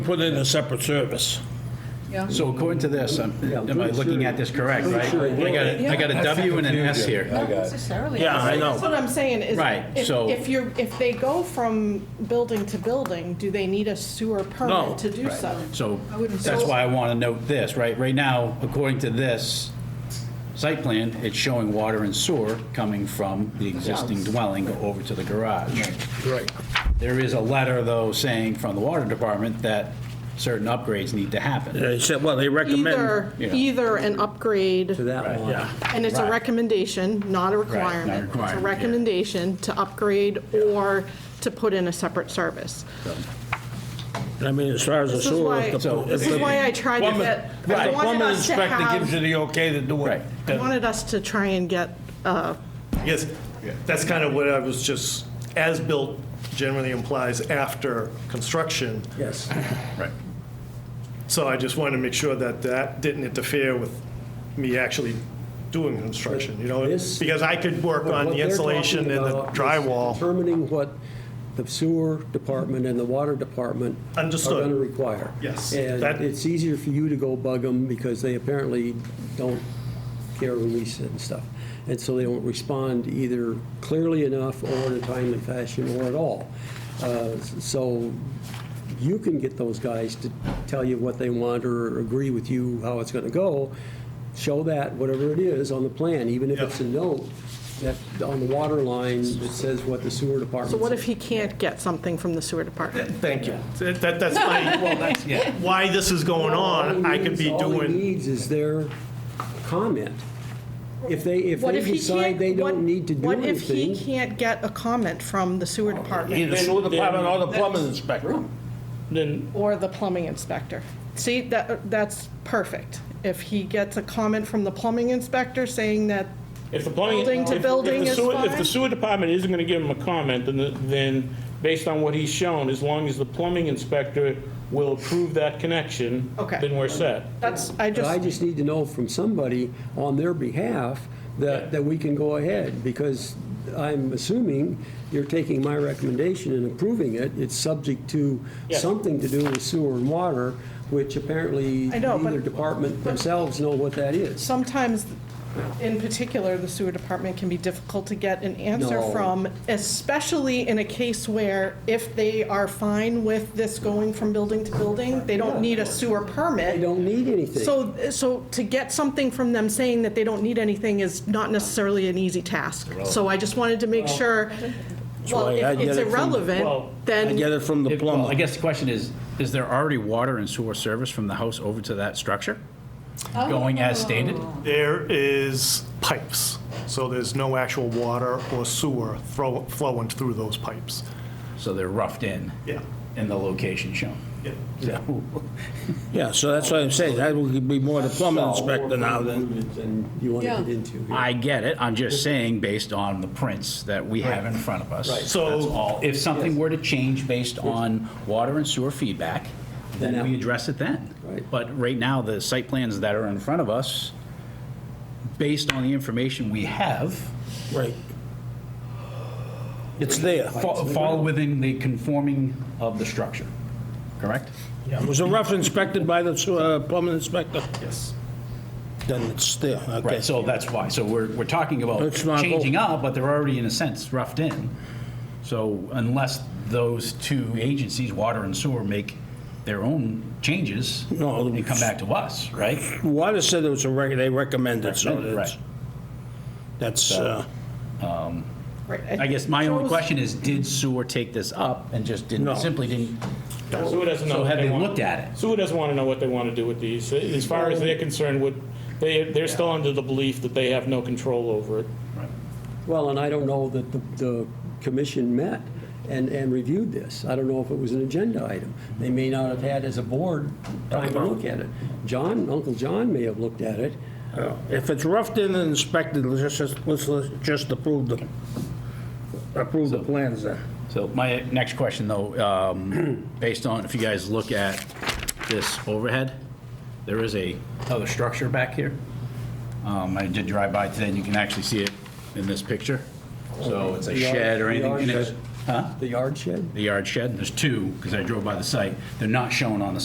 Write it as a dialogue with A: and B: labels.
A: Put in a separate service.
B: Yeah,
C: So according to this, I'm- am I looking at this correct, right? I got a, I got a W and an S here.
D: I got it.
B: necessarily.
A: Yeah, I
E: That's
A: know.
E: what I'm saying, is
C: Right,
E: if,
C: so-
E: if you're, if they go from building to building, do they need a sewer
A: No.
E: permit to do so?
C: So
B: I wouldn't say
C: that's
B: so.
C: why I want to note this, right? Right now, according to this site plan, it's showing water and sewer coming from the existing dwelling over to the garage.
A: Right.
C: There is a letter, though, saying from the water department that certain upgrades need to happen.
A: They said, well, they recommend,
E: Either,
C: yeah.
E: either an upgrade,
D: To that one.
A: yeah,
E: and it's a
C: Right.
E: recommendation, not a requirement. It's a
C: requirement, yeah.
E: recommendation to upgrade or to put in a separate service.
A: I mean, as far as the
E: This is
A: sewer.
E: why-
A: if the-
C: So-
A: if
C: This
E: is
A: the
E: why I tried to
A: plumbing-
E: get- I
A: Right,
E: wanted
A: plumbing
E: us to
A: inspector
E: have-
A: gives you the okay to do it.
C: Right.
E: I
A: That-
E: wanted us to try and get, uh,
F: Yes, that's kind of what I was just, as-built generally implies after construction.
D: Yes.
C: Right.
F: So I just wanted to make sure that that didn't interfere with me actually doing construction, you know?
D: This-
F: Because I could work on
D: What
F: the
D: they're
F: insulation
D: talking
F: and the
D: about is
F: drywall.
D: Determining what the sewer department and the water department.
F: Understood.
D: Are going to require.
F: Yes,
D: And
F: that-
D: it's easier for you to go bug them because they apparently don't care when we sit and stuff. And so they don't respond either clearly enough or in a timely fashion or at all. Uh, So you can get those guys to tell you what they want or agree with you how it's going to go. Show that, whatever it is, on the plan, even if it's a note that on the water line that says what the sewer department.
E: so what if
D: said.
E: he can't get something from the sewer department?
F: Thank you. That, that's my,
C: yeah.
F: why this is going on, I could be
D: All he
F: doing,
D: needs is their comment. If they, if
E: What
D: they
E: if he
D: decide
E: can't-
D: they
E: what-
D: don't need to do
E: What if he
D: anything,
E: can't get a comment from the sewer department?
A: Either sewer department or the plumbing inspector. Then,
E: or the plumbing inspector. See, that, that's perfect. If he gets a comment from the plumbing inspector saying that,
G: If the plumbing.
E: Building to
G: if- if
E: building
G: the
E: is
G: sewer- If
E: fine?
G: the sewer department isn't gonna give him a comment, then, the- then, based on what he's shown, as long as the plumbing inspector will approve that connection.
E: Okay.
G: Then we're set.
E: that's, I
D: I
E: just,
D: just need to know from somebody on their behalf that, that we can go ahead, because I'm assuming you're taking my recommendation and approving it, it's subject to
G: Yes.
D: something to do with sewer and water, which apparently
E: I know, but-
D: neither department themselves know what that is.
E: sometimes, in particular, the sewer department can be difficult to get an answer
D: No.
E: from, especially in a case where if they are fine with this going from building to building, they don't need a sewer
D: They
E: permit.
D: don't need anything.
E: So, so to get something from them saying that they don't need anything is not necessarily an easy task. So I just wanted to make sure, well,
A: why I
E: if
A: get
E: it's
A: it from-
E: irrelevant,
C: well,
A: I get
E: then,
A: it from the
C: If- Well, I
A: plumber.
C: guess the question is, is there already water and sewer service from the house over to that structure?
B: Oh.
C: Going as stated?
F: there is pipes. So there's no actual water or sewer throw- flowing through those pipes.
C: So they're roughed in.
F: Yeah.
C: In the location shown.
F: Yeah.
A: Yeah, so that's what I'm saying, that would be more the plumbing inspector now than,
D: And you want to
B: Yeah.
D: get into. here.
C: I get it, I'm just saying, based on the prints that we have in front of us.
F: So-
C: That's all. If something were to change based on water and sewer feedback, then
D: Then
C: we
D: that-
C: address it then.
D: Right.
C: But right now, the site plans that are in front of us, based on the information we have,
A: right. It's there.
C: fa- fall within the conforming of the structure, correct?
A: Yeah, Was the rough inspected by the sewer- uh, plumbing inspector?
F: Yes.
A: Then it's there, okay.
C: Right, so that's why. So we're, we're talking about
A: It's not-
C: changing up, but they're already in a sense roughed in. So unless those two agencies, water and sewer, make their own changes
A: No,
C: and come back to us, right?
A: Water said it was a rec, they recommended, so
C: Recommended,
A: that's,
C: right.
A: that's, uh,
E: right,
C: I guess my only
E: Shows-
C: question is, did sewer take this up and just
A: No.
C: didn't, simply didn't?
G: Sewer doesn't know
C: So
G: what
C: have they
G: want-
C: looked at it?
G: Sewer doesn't wanna know what they wanna do with these. As far as they're concerned, would, they, they're still under the belief that they have no control over it.
D: Well, and I don't know that the, the commission met and, and reviewed this. I don't know if it was an agenda item. They may not have had as a board time to look at it. John, Uncle John may have looked at it.
A: if it's roughed in and inspected, let's just, let's just approve the, approve the plans then.
C: So my next question, though, um, based on, if you guys look at this overhead, there is a other structure back here. Um, I did drive by today, and you can actually see it in this picture. So it's a shed or
D: The yard
C: anything, and it's
D: shed. The yard shed?
C: the yard shed, there's two, because I drove by the site, they're not shown on the